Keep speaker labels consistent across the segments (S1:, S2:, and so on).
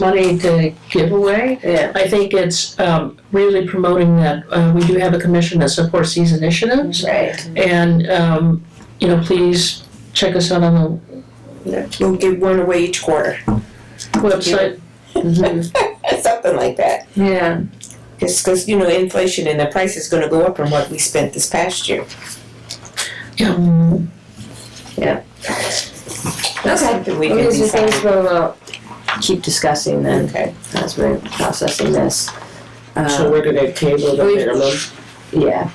S1: money to give away.
S2: Yeah.
S1: I think it's um, really promoting that uh, we do have a commission that supports these initiatives.
S2: Right.
S1: And, um, you know, please check us out on
S2: We'll give one away each quarter.
S1: the website.
S2: Something like that.
S3: Yeah.
S2: It's because, you know, inflation and the price is going to go up from what we spent this past year.
S1: Yeah.
S2: That's
S3: Okay.
S2: something we can
S3: These are
S2: decide.
S3: things we'll uh, keep discussing then
S2: Okay.
S3: as we're processing this. Uh,
S4: So we're gonna table the
S3: we-
S4: minimum.
S3: Yeah,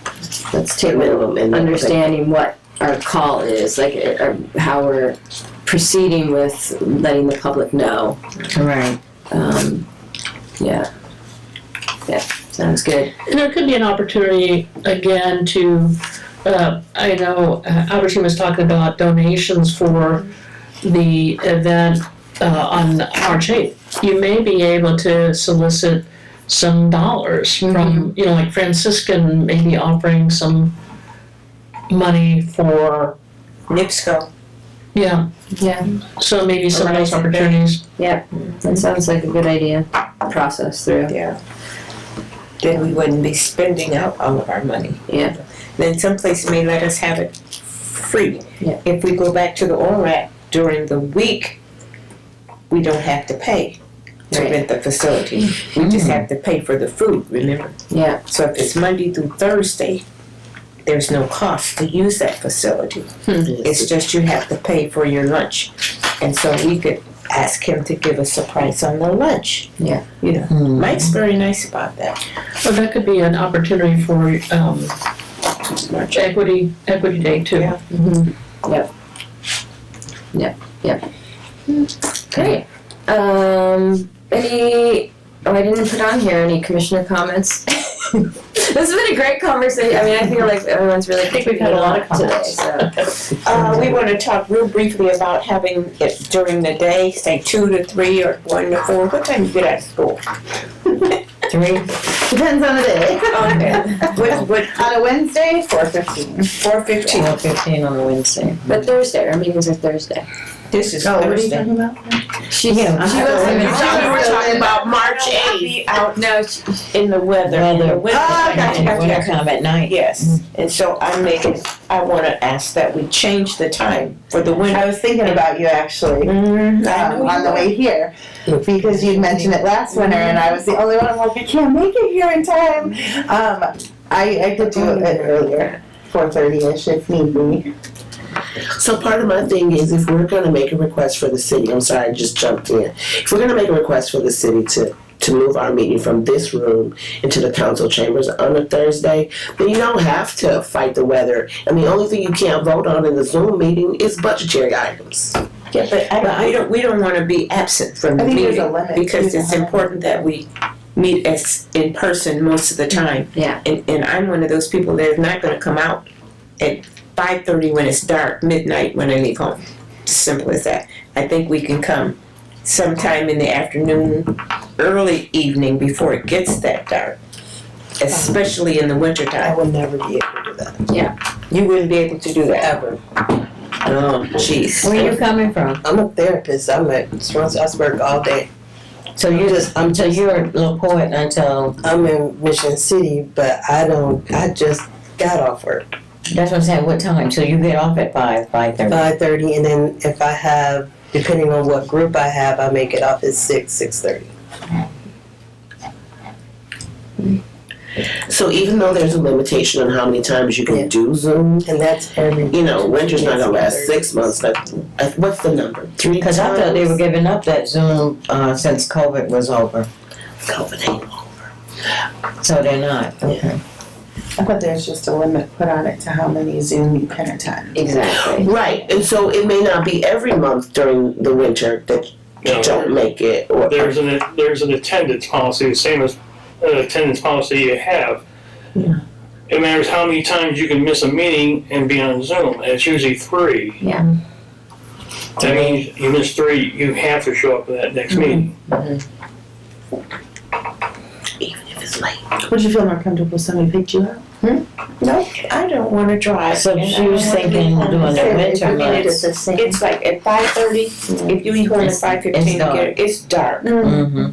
S3: let's
S4: The
S3: take a
S4: minimum and then-
S3: understanding what our call is, like, uh, or how we're proceeding with letting the public know.
S5: Right.
S3: Um, yeah. Yeah, sounds good.
S1: And there could be an opportunity again to, uh, I know uh, Albertine was talking about donations for the event, uh, on March eighth. You may be able to solicit some dollars from, you know, like Franciscan maybe offering some money for,
S2: NIPSCO.
S1: yeah.
S3: Yeah.
S1: So maybe some of those
S2: Horizon Day.
S1: opportunities.
S3: That sounds like a good idea, process through.
S2: Yeah. Then we wouldn't be spending out all of our money.
S3: Yeah.
S2: Then someplace may let us have it free.
S3: Yeah.
S2: If we go back to the ORAC during the week, we don't have to pay to
S3: Right. Mm.
S2: rent the facility. We just have to pay for the food, remember?
S3: Yeah.
S2: So if it's Monday through Thursday, there's no cost to use that facility. It's just you have to pay for your lunch. And so we could ask him to give us a price on the lunch.
S3: Yeah.
S2: You know,
S4: Hmm.
S2: Mike's very nice about that.
S1: Well, that could be an opportunity for, um,
S2: March.
S1: equity, equity day too.
S2: Yeah.
S3: Great. Um, any, oh, I didn't put on here any commissioner comments. this has been a great conversation. I mean, I feel like everyone's really. I
S1: think we've had a lot of comments.
S3: Today,
S2: Uh, we want to talk real briefly about having it during the day, say two to three or one to four. What time you get out of school?
S5: Three. Depends on the day.
S2: Okay. What, what,
S5: On a Wednesday, four fifteen.
S2: four fifteen?
S5: Four fifteen on a Wednesday.
S3: so. But Thursday, our meetings are Thursday.
S2: This is Thursday.
S5: about?
S3: She,
S5: Yeah.
S3: she
S5: Oh,
S3: wasn't.
S5: you
S3: she
S5: thought we were
S3: was-
S5: talking
S2: about March eighth. Out
S3: No, she-
S2: in the weather, in the
S5: Weather.
S2: winter.
S5: Oh, gotcha, gotcha,
S2: Winter
S5: gotcha.
S2: time at night. Yes, and so I'm making, I wanna ask that we change the time for the
S6: I
S2: winter.
S6: was thinking about you actually
S2: Mm,
S6: um, on the way here because you mentioned it last winter, and I was the only one. I'm like, I can't make it here in time. Um, I, I could do it earlier, four thirty ish if need be.
S4: So part of my thing is if we're gonna make a request for the city, I'm sorry, I just jumped in. If we're gonna make a request for the city to, to move our meeting from this room into the council chambers on a Thursday, then you don't have to fight the weather. And the only thing you can't vote on in the Zoom meeting is budgetary items.
S2: Yeah, but I don't, we don't, we don't wanna be absent from the
S6: I think there's a
S2: meeting,
S6: limit.
S2: because it's important that we meet as, in person most of the time.
S3: Yeah.
S2: And, and I'm one of those people that is not gonna come out at five thirty when it's dark, midnight when I leave home. Simple as that. I think we can come sometime in the afternoon, early evening before it gets that dark. Especially in the wintertime.
S6: will never be able to do that.
S2: You wouldn't be able to do that. Ever. Oh, jeez.
S5: Where are you coming from?
S6: I'm a therapist. I'm at Strasbourg all day.
S5: So you just, um, so you're a little poet until,
S6: I'm in Mission City, but I don't. I just got off work.
S5: that's what I'm saying, what time? So you get off at five, five thirty?
S6: five thirty, and then if I have, depending on what group I have, I make it off at six, six thirty.
S4: So even though there's a limitation on how many times you
S6: Yeah.
S4: can do Zoom,
S6: And that's every.
S4: you know, winter's not gonna last six months, but uh, what's the number? Three
S5: Cause I thought they were giving up that Zoom, uh, since COVID was over.
S4: times? COVID ain't
S5: So they're not, okay.
S7: But there's just a limit put on it to how many Zoom you can attend.
S3: Exactly.
S4: Right, and so it may not be every month during the winter that you
S8: No.
S4: don't make it, or
S8: There's an, there's an attendance policy, the same as an attendance policy you have. It matters how many times you can miss a meeting and be on Zoom, and it's usually three.
S3: Yeah.
S8: That means you miss three,
S5: Mm-hmm.
S8: you have to show up for that next meeting.
S4: even if
S9: is late.
S10: Would you feel more comfortable if somebody picked you up?
S2: No, I don't wanna drive.
S1: So
S2: and I
S1: she
S2: don't
S1: was
S2: wanna be
S1: thinking
S2: on
S1: doing it
S2: trip.
S1: winter
S2: I mean, it
S1: months.
S2: is- It's like at five thirty, if you leave home at
S1: It's-
S2: five
S1: it's
S2: fifteen,
S1: dark.
S3: Mm.
S2: it's dark.
S1: Mm-hmm.